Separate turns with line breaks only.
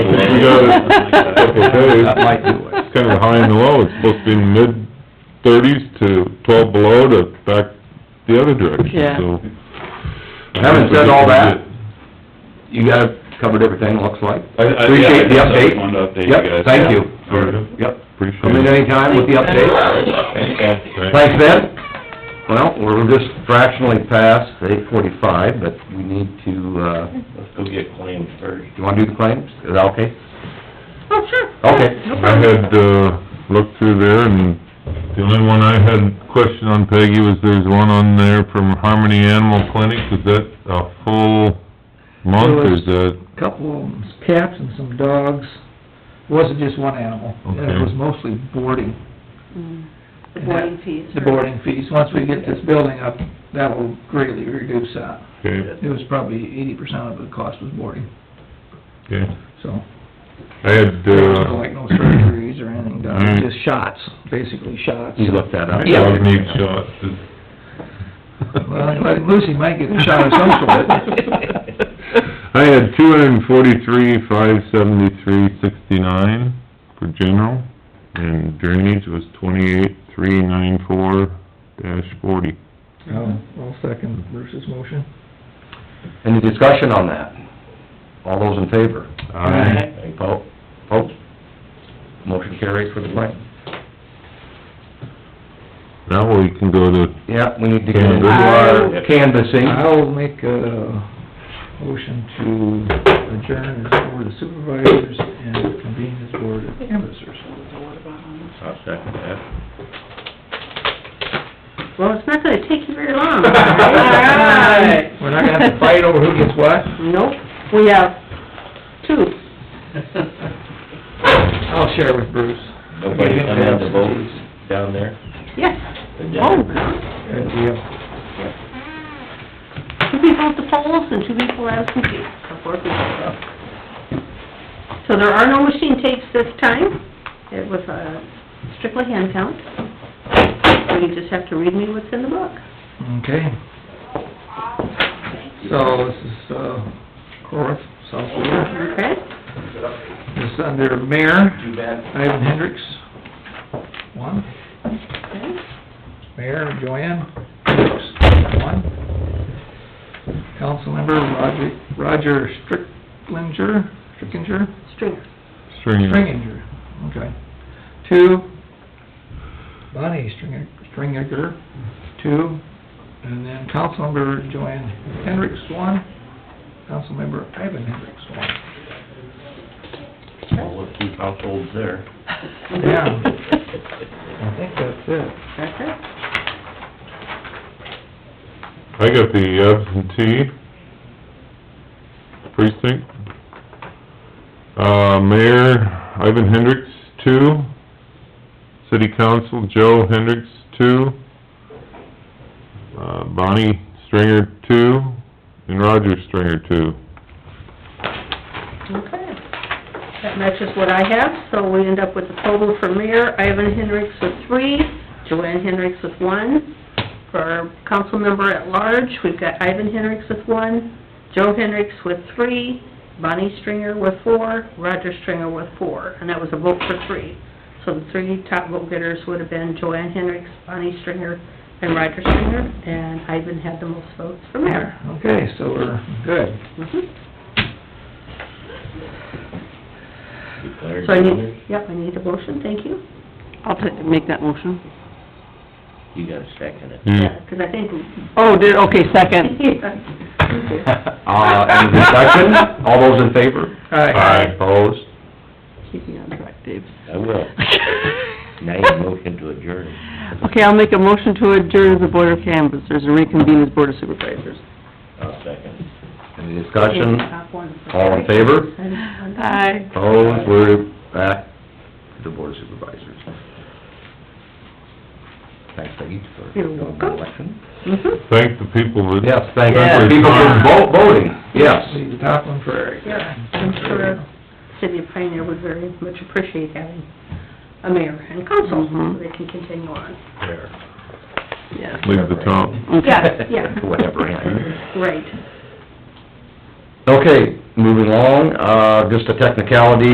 got it.
Okay,
that is-
Like it was.
It's kind of high and low, it's supposed to be mid thirties to twelve below to back the other direction,
Yeah.
so.
Having said all that, you guys covered everything, it looks like.
I- I- yeah,
Appreciate the
I just
update.
wanted to update you guys.
Yep, thank you.
Very good.
Yep, come in
Appreciate it.
anytime with the update.
Fantastic.
Thanks, Ben. Well, we're just fractionally past eight forty-five, but we need to, uh,
Let's go get claims first.
you wanna do the claims? Is that okay?
Oh, sure.
Okay.
No
I
problem.
had, uh, looked through there and the only one I had question on Peggy was there's one on there from Harmony Animal Clinic, is that a full month or is that?
couple of cats and some dogs. It wasn't just one animal, and it
Okay.
was mostly boarding.
The boarding fees.
The boarding fees. Once we get this building up, that will greatly reduce that.
Okay,
It was probably eighty percent of the cost was boarding,
okay.
so.
I had,
There was no, like
uh,
no surgeries or anything done,
Alright.
It was just shots, basically shots.
You looked that up?
Yeah.
dog need shots.
Well, I'm glad Lucy might get a shot of some sort.
I had two hundred and forty-three, five seventy-three, sixty-nine for general, and drainage was twenty-eight, three nine four dash forty.
I'll- I'll second Bruce's motion.
Any discussion on that? All those in favor?
Aye.
Any po- Opposed? Motion carries for the claim.
Now we can go to,
Yeah, we need to get into
I'll-
our canvassing.
I'll make a motion
Hmm.
to adjourn as Board of Supervisors and convene as Board of Canvassers.
I'll second that.
Well, it's not gonna take you very long.
All right.
We're not gonna have to fight over who gets what?
Nope, we have two.
I'll share with Bruce.
Nobody come in to vote down there?
Yes.
The
Oh,
Democrats?
Good deal.
two people at the polls and two people at the computer, or four people. So there are no machine tapes this time. It was uh, strictly hand count. So you just have to read me what's in the book.
Okay. So this is, uh, Cora, South Florida.
Okay?
This is under Mayor Ivan Hendricks. One.
Okay.
Mayor Joanne Brooks, one. Councilmember Roger, Roger Stricklinger, Strickinger,
Stringer.
Stringer.
Stringinger, okay. Two, Bonnie Stringer, Stringinger, two, and then Councilmember Joanne Hendricks, one. Councilmember Ivan Hendricks, one.
Well, let's keep households there.
Yeah. I think that's it.
That's it.
I got the absentee precinct. Uh, Mayor Ivan Hendricks, two. City Council Joe Hendricks, two. Uh, Bonnie Stringer, two, and Roger Stringer, two.
Okay. That matches what I have, so we end up with a total for mayor, Ivan Hendricks with three, Joanne Hendricks with one. For council member at large, we've got Ivan Hendricks with one, Joe Hendricks with three, Bonnie Stringer with four, Roger Stringer with four, and that was a vote for three. So the three top vote getters would have been Joanne Hendricks, Bonnie Stringer, and Roger Stringer, and Ivan had the most votes for mayor.
Okay, so we're good.
Mhm.
Declared
So I
winners.
need, yep, I need a motion, thank you.
I'll ta- make that motion.
You gotta second it.
You-
Yeah, 'cause I think,
Oh, did, okay, second.
Uh, any discussion? All those in favor?
All right.
Aye.
Opposed?
Keep me on track, Dave.
I will. Now you motion to adjourn.
Okay, I'll make a motion to adjourn the Board of Canvassers and reconvene as Board of Supervisors.
I'll second.
Any discussion?
Hmm?
All in favor?
Aye.
Opposed? We're back to the board of supervisors. Thanks, Peggy, for
You're
doing the
welcome.
election.
Mhm.
Thank the people that...
Yes, thank you
Yeah.
for people for vo- voting, yes.
Leave the top one for Eric.
Yeah, I'm sure City of Pioneer would very much appreciate having a mayor and council, so
Mhm.
they can continue on.
Yes.
Leave the top.
Okay.
Yeah, yeah.
Whatever, yeah.
Right.
Okay, moving along, uh, just a technicality,